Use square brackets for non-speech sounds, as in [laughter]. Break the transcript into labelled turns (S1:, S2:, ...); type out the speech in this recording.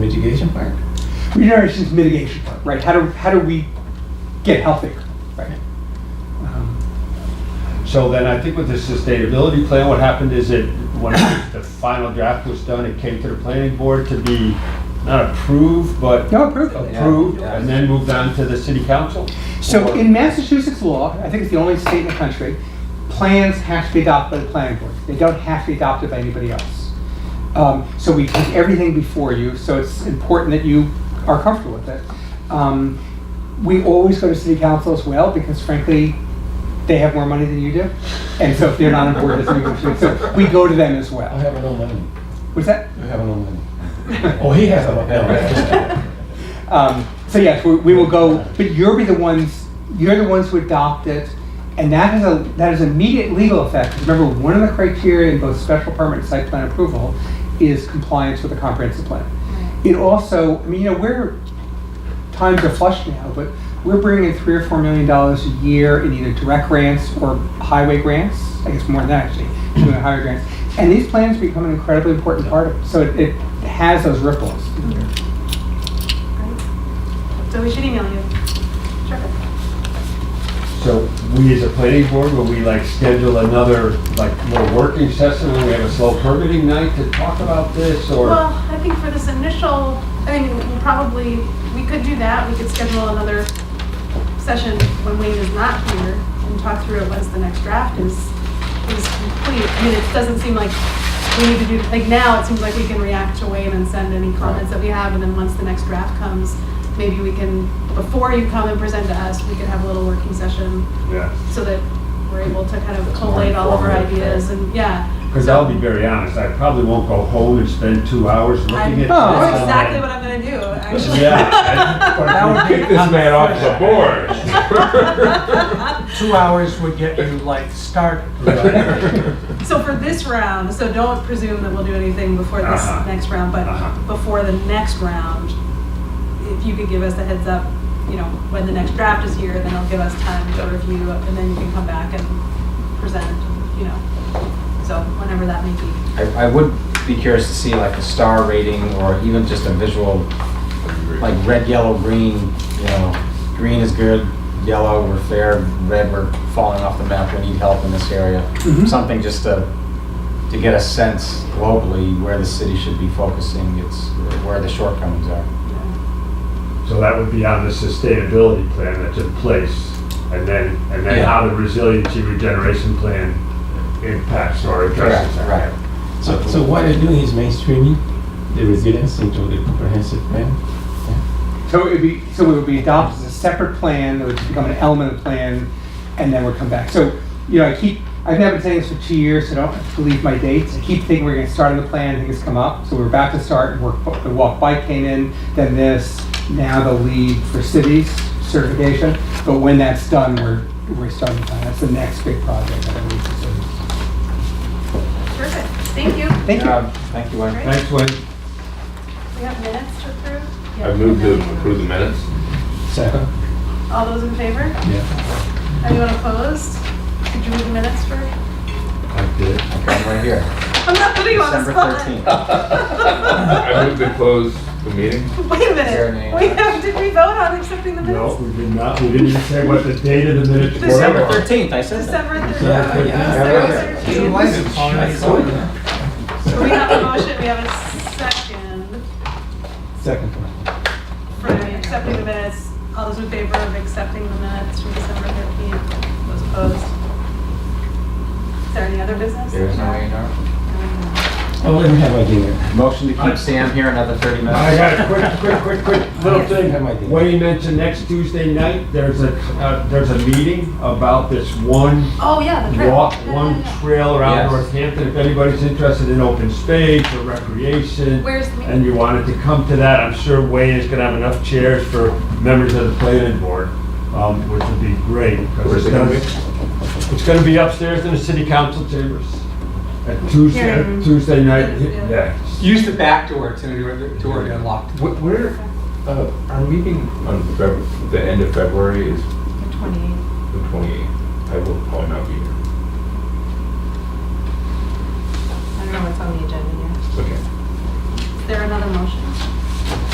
S1: mitigation part?
S2: Regeneration is mitigation part, right? How do, how do we get healthier, right? Um,
S3: So then I think with the sustainability plan, what happened is it, when the final draft was done, it came to the planning board to be not approved, but
S2: No, approved.
S3: approved, and then moved on to the city council?
S2: So
S3: Or-
S2: in Massachusetts law, I think it's the only state in the country, plans have to be adopted by the planning board. They don't have to be adopted by anybody else. Um, So we take everything before you, so it's important that you are comfortable with it. Um, We always go to city council as well, because frankly, they have more money than you do. And so if they're not on board, it's an issue. So we go to them as
S1: I
S2: well.
S1: have no money.
S2: Was that?
S1: I have no money. [laughs] Oh, he has a money.
S2: Um, so yes, we, we will go, but you'll be the ones, you're the ones who adopt it, and that has a, that has immediate legal effect. Remember, one of the criteria in both special permit and site plan approval is compliance with the comprehensive plan. It also, I mean, you know, we're, times are flush now, but we're bringing in three or four million dollars a year in either direct grants or highway grants, I guess more than that actually, doing highway grants. And these plans become an incredibly important part of, it. so it, it has those ripples.
S4: So we should email you. Sure.
S3: So we as a planning board, will we like schedule another, like little working session, and we have a slow permitting night to talk about this, or?
S4: Well, I think for this initial, I mean, we'll probably, we could do that. We could schedule another session when Wayne is not here and talk through it once the next draft is, is complete. I mean, it doesn't seem like we need to do, like now, it seems like we can react to Wayne and send any comments that we have. And then once the next draft comes, maybe we can, before you come and present to us, we could have a little working session
S3: Yeah.
S4: so that we're able to kind of collate all of our
S3: informative,
S4: ideas and, yeah.
S3: Because
S4: So-
S3: I'll be very honest, I probably won't go home and spend two hours
S4: I'm-
S3: looking at.
S2: Oh.
S4: That's
S3: this.
S4: exactly what I'm gonna do, actually.
S5: [laughs]
S3: Yeah.
S5: That would
S6: Get this man off the board.
S5: two hours would get you like started.
S4: So for this round, so don't presume that we'll do anything before this
S3: Uh-huh.
S4: next round, but
S3: Uh-huh.
S4: before the next round, if you could give us a heads up, you know, when the next draft is here, then it'll give us time to review, and then you can come back and present, you know, so whenever that may be.
S7: I, I would be curious to see like a star rating or even just a visual, like red, yellow, green, you know, green is good, yellow, we're fair, red, we're falling off the map, we need help in this area.
S3: Hmm.
S2: Mhm.
S7: Something just to, to get a sense globally where the city should be focusing, it's, where the shortcomings are.
S3: [laughs] So that would be on the sustainability plan that's in place, and then, and then
S7: Yeah.
S3: how the resiliency regeneration plan impacts or addresses
S7: Correct,
S1: [laughs]
S3: that.
S1: So, so what they're doing is mainstreaming the resilience into the comprehensive plan?
S2: So it would be, so it would be adopted as a separate plan, it would become an element of the plan, and then we would come back. So, you know, I keep, I've now been saying this for two years, so don't have to leave my dates. I keep thinking we're gonna start on the plan, things come up, so we're about to start, and work, the walk bike came in, then this, now the lead for cities certification. But when that's done, we're, we're starting the plan, that's the next big project that I need to do.
S4: Perfect, thank you.
S2: Thank you.
S7: Um, Thank you, Wayne.
S4: Great.
S3: Thanks, Wayne.
S4: We have minutes to approve?
S6: I moved to approve the minutes.
S1: Second?
S4: All those in favor?
S1: Yeah.
S4: Anyone opposed? Could you read the minutes for?
S3: I did.
S7: Okay, I'm right here.
S4: I'm not putting you on the
S7: December
S4: spot.
S7: 13th.
S6: I moved to close the meeting.
S4: [laughs] Wait a
S7: Your name.
S4: minute. We have, did we vote on accepting the
S3: No,
S4: minutes?
S3: we did not, we didn't even say what the date of the minutes
S4: December
S3: were.
S7: December 13th, I said that.
S4: December
S1: Yeah.
S4: thirteenth.
S7: Yeah.
S4: December
S1: Oh,
S4: thirteenth. We have a motion, we have a second
S1: Second.
S4: for accepting the minutes. All those in favor of accepting the minutes from December thirteenth? Those opposed? Is there any other business?
S7: There's no way, no.
S1: Oh, let me have my dinner.
S7: Motion to keep Sam here another 30 minutes.
S3: I got a quick, quick, quick, quick little
S1: Have my dinner.
S3: thing. Wayne mentioned next Tuesday night, there's a, uh, there's a meeting about this one
S4: Oh, yeah, the trip.
S3: walk
S4: Yeah,
S3: one
S4: yeah, yeah.
S3: trail around
S7: Yes.
S3: Northampton. If anybody's interested in open space or recreation,
S4: Where's the meeting?
S3: and you wanted to come to that, I'm sure Wayne is gonna have enough chairs for members of the planning board, um, which would be great. 'cause
S6: Where's
S3: it's
S6: it gonna
S3: gonna- It's gonna be upstairs in the city council chambers. At Tuesday,
S4: Here.
S3: at Tuesday night,
S4: Yeah.
S3: yeah.
S2: Use the back door to, door to unlock.
S6: Wh- Where, uh, our meeting on Feb, the end of February is
S4: The 28th.
S6: the 28th. I will probably not be here.
S4: I don't know what's on the agenda yet.
S6: Okay.
S4: Is there another motion?